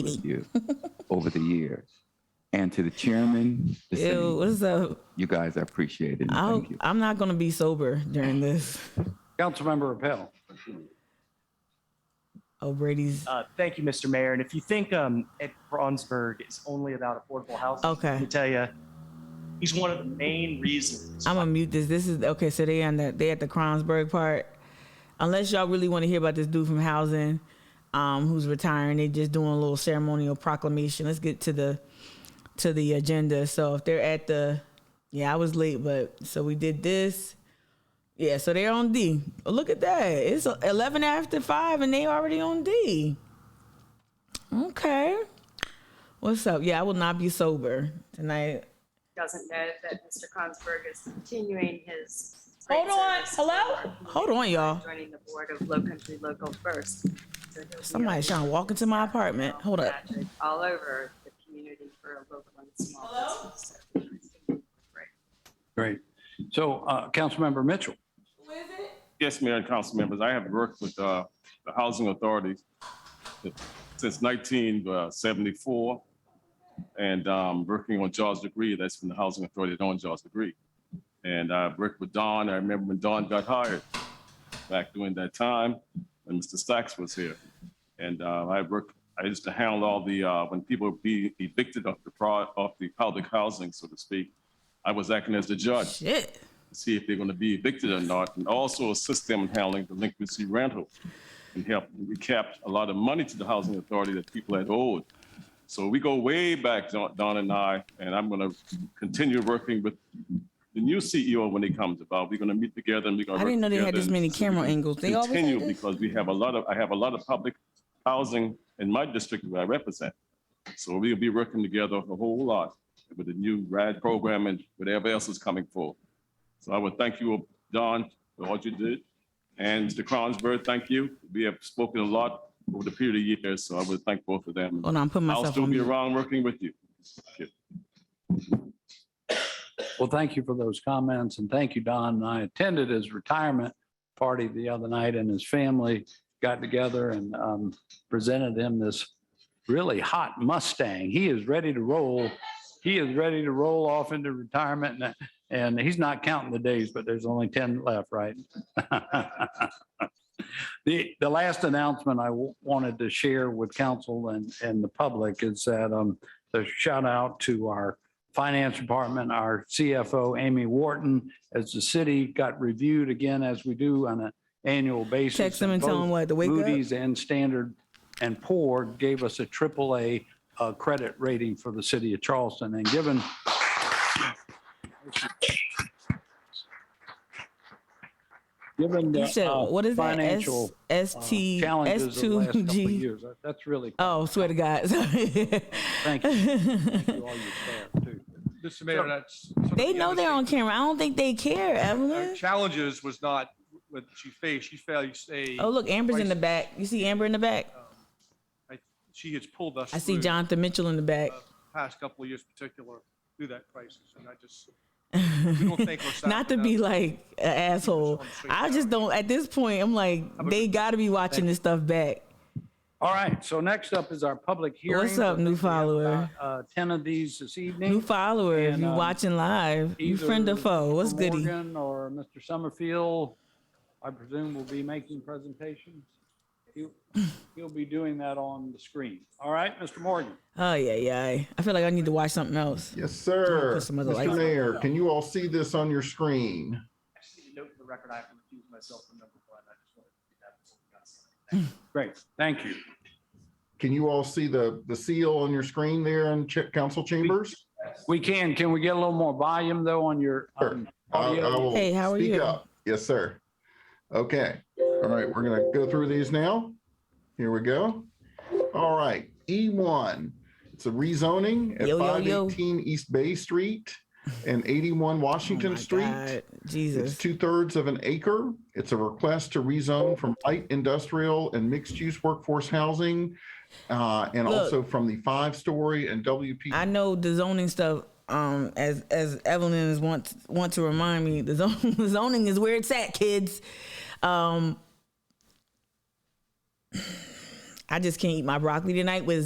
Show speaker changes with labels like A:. A: with you over the years. And to the chairman, the same.
B: Ew, what's up?
A: you guys, I appreciate it. and
B: I'll,
A: Thank you.
B: I'm not gonna be sober during this.
C: Councilmember Appel.
B: Oh, Brady's.
D: Uh, thank you, Mr. Mayor. And if you think um, Ed Bronsberg is only about affordable housing,
B: Okay.
D: let me tell you, he's one of the main reasons.
B: I'm gonna mute this. This is okay. So they on the they at the Kronsberg part. Unless y'all really want to hear about this dude from housing, um, who's retiring, they just doing a little ceremonial proclamation. Let's get to the to the agenda. So if they're at the, yeah, I was late, but so we did this. Yeah, so they're on D. Oh, Look at that. It's 11 after 5 and they already on D. Okay. What's up? Yeah, I will not be sober tonight.
E: doesn't know that Mr. Consberg is continuing his.
B: Hold
E: great
B: on.
E: service
B: Hello? Hold on, y'all.
E: by Joining the board of Low Country Local First. So he'll be
B: Somebody's trying to walk into my apartment. Hold up.
E: active All over the community for a local and small business. So, right.
C: Great. So uh, Councilmember Mitchell.
F: Yes, Mayor and council members, I have worked with uh, the housing authorities since 1974 and um, working on Jaws Degree, that's from the housing authority that owns Jaws Degree. And I worked with Don, I remember when Don got hired back during that time when Mr. Sachs was here. And uh, I worked, I used to handle all the, uh, when people would be evicted of the, pro- of the public housing, so to speak, I was acting as the judge
B: Shit.
F: to see if they're going to be evicted or not, and also assist them in handling delinquency rental and help. We kept a lot of money to the housing authority that people had owed. So we go way back, Don Don and I, and I'm going to continue working with the new CEO when he comes about. We're going to meet together and we're going
B: I
F: to.
B: didn't know they had this many camera angles. They always
F: Continue
B: had this?
F: because we have a lot of, I have a lot of public housing in my district where I represent. So we'll be working together a whole lot with the new RAD program and whatever else is coming forward. So I would thank you, Don, for what you did. And Mr. Cronsberg, thank you. We have spoken a lot over the period of years, so I would thank both of them.
B: Hold on, Oh, I'm putting
F: I'll
B: myself
F: still
B: on
F: be
B: mute.
F: around working with you.
C: Well, thank you for those comments and thank you, Don. And I attended his retirement party the other night and his family got together and um, presented him this really hot Mustang. He is ready to roll. He is ready to roll off into retirement and, and he's not counting the days, but there's only 10 left, right? The, the last announcement I w- wanted to share with council and, and the public is that um, the shout out to our Finance Department, our CFO, Amy Wharton, as the city got reviewed again, as we do on an annual basis.
B: Text them and tell them
C: both
B: what, to wake up?
C: Moody's and Standard and Poor gave us a triple A uh, credit rating for the city of Charleston. And given given
B: You said,
C: the uh,
B: what is that? S,
C: financial
B: S
C: uh,
B: T,
C: challenges
B: S
C: of the last
B: two
C: couple of
B: G.
C: years. That- That's really,
B: Oh, swear to God.
C: thank you. Thank you, all your staff, too.
G: Mr. Mayor, that's.
B: They know they're on camera. I don't think they care, Evelyn.
G: Challenges was not what she faced. She faced a,
B: Oh, look, Amber's in the back. You see Amber in the back?
G: she has pulled us.
B: I see
G: through
B: Jonathan Mitchell in the back.
G: the Past couple of years in particular through that crisis. And I just, we don't thank ourselves
B: Not to be
G: enough.
B: like an asshole. I just don't, at this point, I'm like, they gotta be watching this stuff back.
C: All right, so next up is our public hearing.
B: What's up, new follower?
C: uh, Ten of these this evening.
B: New follower, if
C: And,
B: you
C: um,
B: watching live, you friend or
C: Either
B: foe, what's
C: Mr.
B: goody?
C: Morgan Or Mr. Summerfield, I presume will be making presentations. He'll he'll be doing that on the screen. All right, Mr. Morgan?
B: Oh yeah, yeah. I feel like I need to watch something else.
H: Yes, sir.
B: Put some other lights
H: Mr.
B: on.
H: Mayor, can you all see this on your screen?
D: I just need to note for the record, I have to recuse myself from number one. I just wanted to do that before we got started.
C: Great, thank you.
H: Can you all see the, the seal on your screen there in Ch- council chambers?
C: We can, can we get a little more volume though on your um,
H: I- I
C: audio?
H: will
B: Hey, how are
H: speak
B: you?
H: up. Yes, sir. Okay. All right, we're gonna go through these now. Here we go. All right, E1, it's a rezoning at
B: Yo, yo, yo.
H: 518 East Bay Street and 81
B: Oh
H: Washington
B: my
H: Street.
B: God,
H: It's
B: Jesus.
H: two thirds of an acre. It's a request to rezone from light industrial and mixed use workforce housing. Uh, and
B: Look.
H: also from the five story and WP.
B: I know the zoning stuff. Um, as as Evelyn is want want to remind me, the zon- the zoning is where it's at, kids. Um, I just can't eat my broccoli tonight with